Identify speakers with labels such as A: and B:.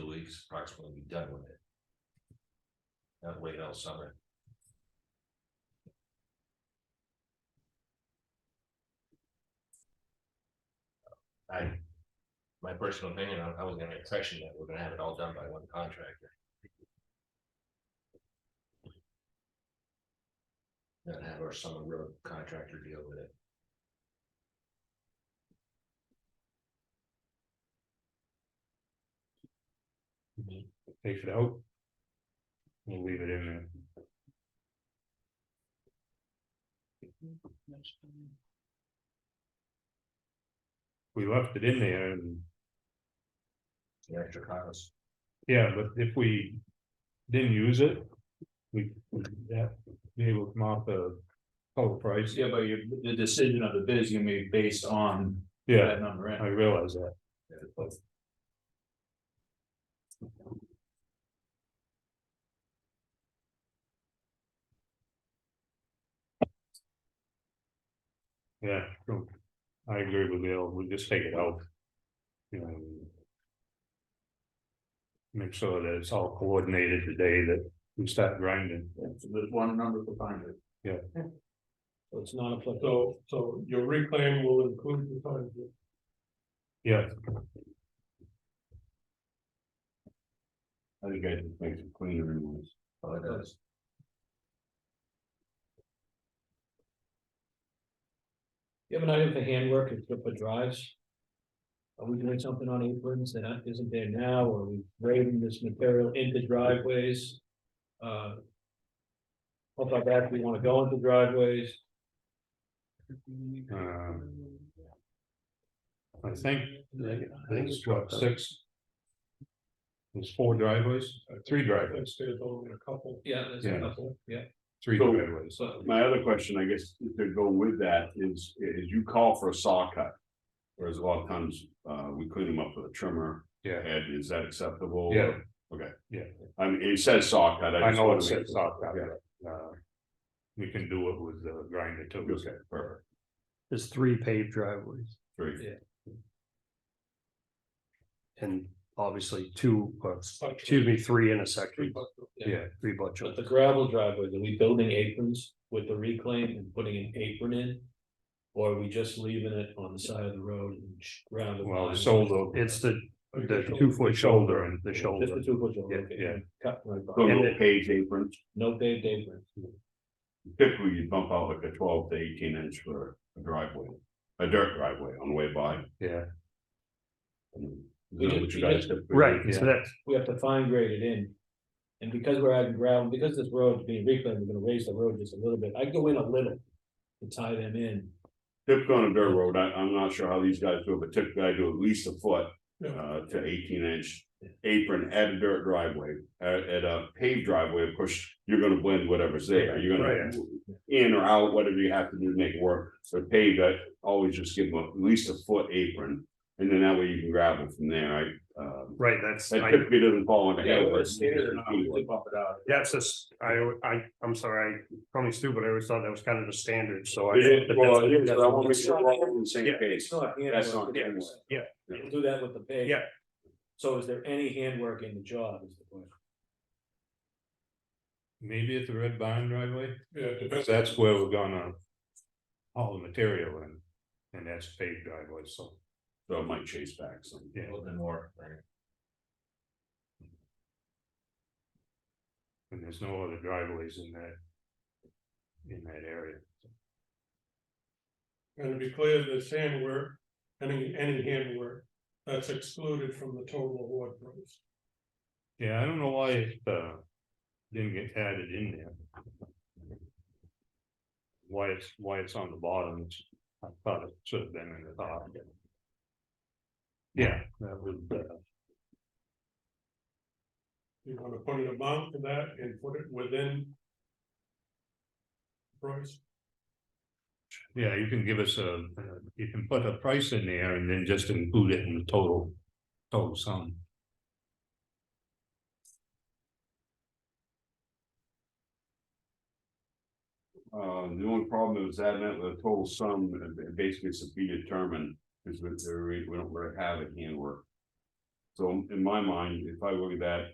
A: weeks approximately be done with it. Not wait all summer. I, my personal opinion, I I was gonna impression that we're gonna have it all done by one contractor. Not have our summer road contractor deal with it.
B: Take it out. We'll leave it in there. We left it in there and,
A: The extra cost.
B: yeah, but if we didn't use it, we, that, they will come off the total price.
C: Yeah, but your, the decision of the bid is gonna be based on
B: Yeah,
C: that number,
B: I
C: right?
B: realize that. Yeah, true. I agree with Bill, we just take it out. You know. Make sure that it's all coordinated the day that we start grinding.
C: So There's one number for find it.
D: So it's not applicable. So, so your reclaim will include the fund.
B: Yeah,
A: I think it makes it cleaner and less. Oh, it does.
D: You have an item for handwork and flip for drives? Are we doing something on aprons that aren't- isn't there now, or are we grading this material into driveways? Uh. Hope like that, we wanna go into driveways,
B: um. I think, I think it's what, six? There's four driveways, uh, three driveways,
D: there's only a couple. Yeah, there's
B: Yeah.
D: a couple, yeah,
B: three
E: So-
B: driveways.
D: so,
E: My other question, I guess, to go with that is, is you call for a saw cut. Whereas a lot of times, uh, we clean them up with a trimmer
B: Yeah,
E: head, is that acceptable?
B: yeah,
E: I mean, it says saw cut.
B: I
E: just
B: know
E: wanna
B: it
E: make-
B: says soft top,
E: Yeah,
B: but, uh. We can do it with the grinder too.
E: Okay, perfect,
F: There's three paved driveways
E: great.
F: and obviously two, uh,
D: Buttress.
F: excuse me, three intersections.
D: yeah.
F: Yeah, three
D: but
F: butchers.
D: the gravel driveways, are we building aprons with the reclaim and putting an apron in? Or are we just leaving it on the side of the road and sh- ground? it
B: Well,
D: behind?
B: so
F: It's the, the
B: the.
F: two foot shoulder and the
D: Just the
F: shoulder.
D: two foot shoulder.
B: Yeah, yeah.
D: Cut right by.
E: So
F: And
E: no
F: it-
E: page aprons,
D: No paved apron.
E: typically you bump out like a twelve to eighteen inch for a driveway, a dirt driveway on the way by.
B: Yeah.
E: Is that what you guys typically do?
F: Right, so that's,
D: We have to fine grade it in. And because we're adding gravel, because this road is being reclaimed, we're gonna raise the road just a little bit. I go in a little. To tie them in.
E: Typically on a dirt road, I, I'm not sure how these guys do it, but typically I do at least a foot, uh, to eighteen inch apron at a dirt driveway. At, at a paved driveway, of course, you're gonna blend whatever's there, you're gonna in or out, whatever you have to do to make it work. So paved, I always just give them at least a foot apron, and then that way you can gravel from there, I, um.
F: right, that's,
E: That
F: I,
E: typically doesn't fall on the
C: Yeah,
E: hill.
C: we're scared, and we
E: but-
C: just bump it out.
F: that's just, I, I, I'm sorry, I call me stupid, I always thought that was kind of the standard, so I.
E: It is, well, it is, but I wanna make
F: that's-
E: sure we're all on the same
F: Yeah.
E: page.
D: not
E: That's not handwork.
F: Yeah.
D: We'll do that with the paved.
F: Yeah.
D: So is there any handwork in the job is the question?
B: Maybe at the red barn driveway,
D: Yeah.
B: because that's where we're gonna. All the material in, and that's paved driveway, so,
E: So it might chase back some.
B: yeah,
A: A little bit more, right?
B: and there's no other driveways in that. In that area.
G: And to be clear, this handwork, any, any handwork, that's excluded from the total award price.
B: Yeah, I don't know why it, uh, didn't get added in there. Why it's, why it's on the bottom, it's- I thought it should have been in the top. Yeah, that was, uh,
G: You wanna put an amount to that and put it within. Price,
B: yeah, you can give us a, you can put a price in there and then just include it in the total, total sum.
E: Uh, the only problem is that meant the total sum, uh, basically it's a be determined, because we, we don't really have a handwork. So in my mind, if I look at that,